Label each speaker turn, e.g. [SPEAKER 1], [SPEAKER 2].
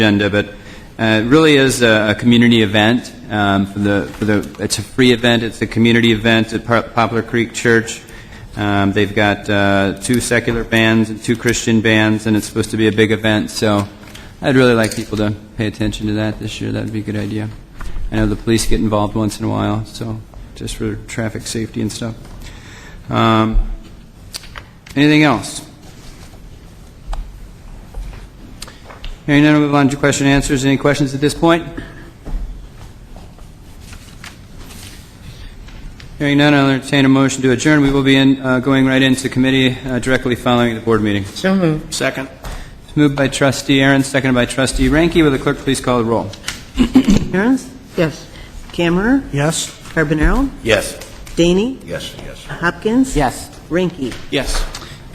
[SPEAKER 1] agenda, but uh, it really is a, a community event. Um, for the, for the, it's a free event. It's a community event at Par- Poplar Creek Church. Um, they've got uh, two secular bands and two Christian bands, and it's supposed to be a big event. So I'd really like people to pay attention to that this year. That would be a good idea. I know the police get involved once in a while, so just for traffic safety and stuff. Um, anything else? Hearing none, we'll move on to question and answers. Any questions at this point? Hearing none, I'll entertain a motion to adjourn. We will be in, uh, going right into committee uh, directly following the board meeting.
[SPEAKER 2] So moved.
[SPEAKER 3] Second.
[SPEAKER 1] It's moved by trustee Aaron, seconded by trustee Ranky. Will the clerk please call the roll?
[SPEAKER 2] Aaron's? Yes. Camera?
[SPEAKER 3] Yes?
[SPEAKER 2] Carbonaro?
[SPEAKER 3] Yes.
[SPEAKER 2] Daney?
[SPEAKER 3] Yes, yes.
[SPEAKER 2] Hopkins? Yes. Ranky?
[SPEAKER 3] Yes.